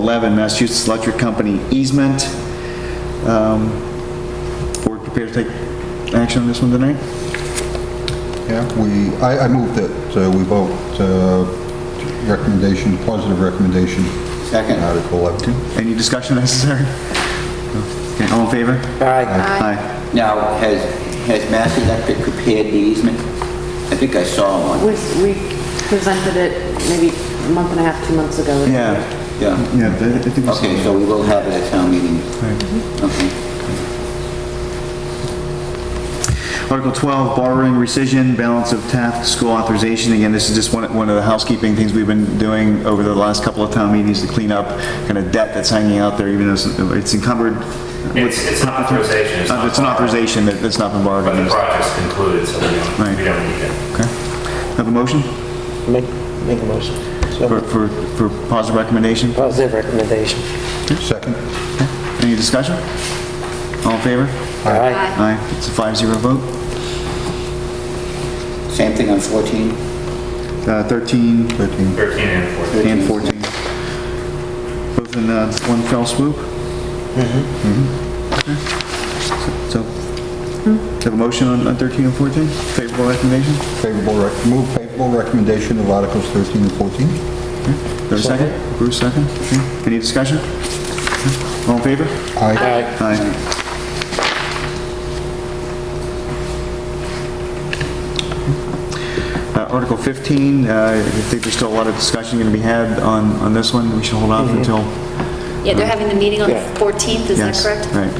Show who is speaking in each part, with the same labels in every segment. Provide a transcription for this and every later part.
Speaker 1: 11, Massachusetts Electric Company easement. Um, Board prepared to take action on this one tonight?
Speaker 2: Yeah, we, I, I move that uh, we vote uh, recommendation, positive recommendation.
Speaker 1: Second.
Speaker 2: on Article 11.
Speaker 1: Any discussion necessary? Okay, all in favor?
Speaker 3: Aye.
Speaker 1: Aye.
Speaker 4: Now, has, has Mass Electric prepared the easement? I think I saw one.
Speaker 3: We we presented it maybe a month and a half, two months ago.
Speaker 1: Yeah,
Speaker 4: Yeah.
Speaker 1: yeah, I think we saw
Speaker 4: Okay,
Speaker 1: that.
Speaker 4: so we will have it at town meeting. Okay.
Speaker 1: Article 12, borrowing rescission, balance of Taft School authorization. Again, this is just one, one of the housekeeping things we've been doing over the last couple of town meetings to clean up kind of debt that's hanging out there, even though it's- it's encumbered.
Speaker 5: It's, it's an authorization, it's
Speaker 1: Uh,
Speaker 5: not.
Speaker 1: It's an authorization that, that's not been borrowed.
Speaker 5: But the project's concluded, so we
Speaker 1: Right.
Speaker 5: don't, we don't need it.
Speaker 1: Okay. Have a motion
Speaker 6: Make, make a motion.
Speaker 1: for,
Speaker 6: So,
Speaker 1: for, for positive recommendation?
Speaker 6: positive recommendation.
Speaker 2: Second?
Speaker 1: Any discussion? All in favor?
Speaker 6: Aye.
Speaker 1: Aye. It's a five zero vote.
Speaker 4: Same thing on 14?
Speaker 1: Uh, 13
Speaker 2: 13.
Speaker 5: 13 and
Speaker 1: and
Speaker 5: 14.
Speaker 1: 14. Both in uh, one fell swoop? Mm-hmm. So, have a motion on on 13 and 14? Favorable recommendation?
Speaker 2: Favorable, rec- move favorable recommendation of Articles 13 and 14.
Speaker 1: There's a second? Bruce, second? Okay. Any discussion? All in favor?
Speaker 2: Aye.
Speaker 6: Aye.
Speaker 1: Uh, Aye. Uh, Article 15, uh, I think there's still a lot of discussion going to be had on, on this one. We should hold
Speaker 7: Mm-hmm.
Speaker 1: off until...
Speaker 7: Yeah, they're having the meeting on the
Speaker 6: Yeah.
Speaker 7: 14th, is that
Speaker 1: yes,
Speaker 7: correct?
Speaker 1: Right.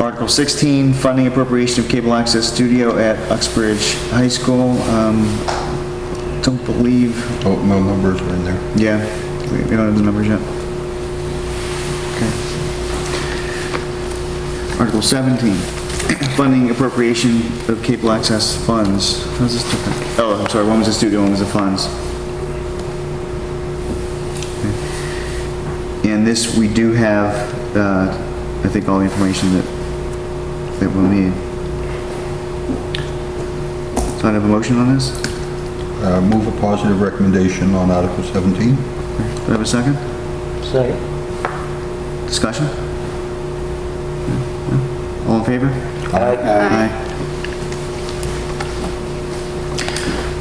Speaker 1: Article 16, funding appropriation of cable access studio at Uxbridge High School. Um, Don't believe,
Speaker 2: Oh, no numbers are in there.
Speaker 1: yeah, we we don't have the numbers yet. Okay. Article 17, funding appropriation of cable access funds. How's this different? Oh, I'm sorry, one was the studio, one was the funds. And this, we do have, uh, I think, all the information that, that we'll need. So I have a motion on this? Do
Speaker 2: Uh, Move a positive recommendation on Article 17.
Speaker 1: I have a second?
Speaker 6: Second.
Speaker 1: Discussion? All in favor?
Speaker 6: Aye.
Speaker 1: Aye.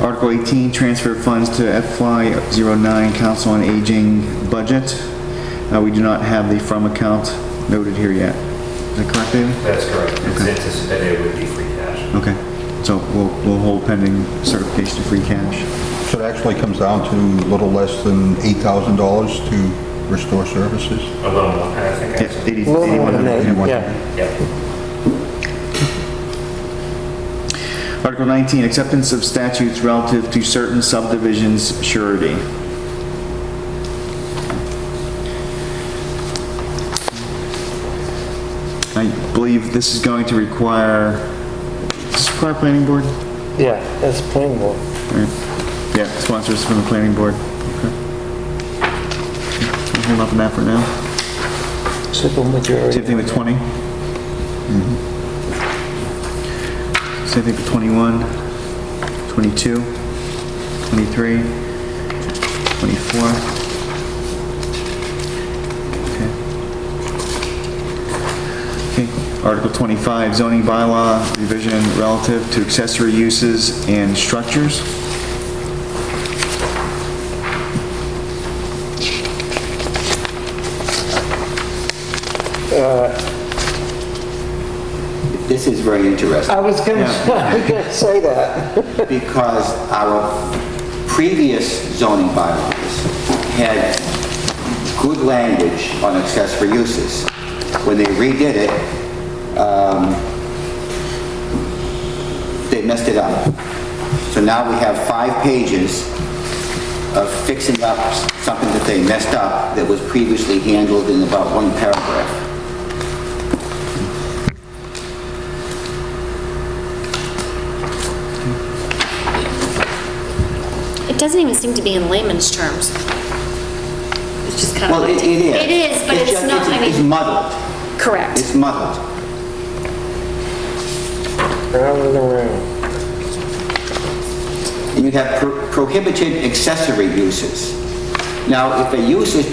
Speaker 1: Article 18, transfer funds to FY '09 Council on Aging budget. Uh, We do not have the from account noted here yet. Is that correct, David?
Speaker 5: That's correct. It's anticipated it would be free cash.
Speaker 1: Okay, so we'll we'll hold pending certification of free cash.
Speaker 2: So it actually comes down to a little less than $8,000 to restore services.
Speaker 5: A little more, I think.
Speaker 1: Yeah,
Speaker 5: actually.
Speaker 1: 80
Speaker 6: A little more than
Speaker 1: 81.
Speaker 6: that, yeah.
Speaker 5: Yeah.
Speaker 1: Article 19, acceptance of statutes relative to certain subdivisions surety. I believe this is going to require, does this require planning board?
Speaker 6: Yeah, that's plain board.
Speaker 1: Or- Yeah, sponsors from the planning board. Okay. We'll Hold off on that for now.
Speaker 6: Simple
Speaker 1: Same
Speaker 6: majority.
Speaker 1: thing with 20. Mm-hmm. Same thing with 21, 22, 23, 24. Okay. Okay. Article 25, zoning bylaw revision relative to accessory uses and structures.
Speaker 4: This is very interesting
Speaker 6: I was gonna, I was gonna say that.
Speaker 4: because our previous zoning bylaws had good language on accessory uses. When they redid it, um, they messed it up. So now we have five pages of fixing up something that they messed up that was previously handled in about one paragraph.
Speaker 7: It doesn't even seem to be in layman's terms. It's just kind of
Speaker 4: Well, it
Speaker 7: like...
Speaker 4: it is.
Speaker 7: It is, but it's
Speaker 4: just-
Speaker 7: not, I
Speaker 4: It's
Speaker 7: mean,
Speaker 4: muddled.
Speaker 7: correct.
Speaker 4: It's muddled.
Speaker 6: Round and around.
Speaker 4: And you have pro- prohibited accessory uses. Now, if a use is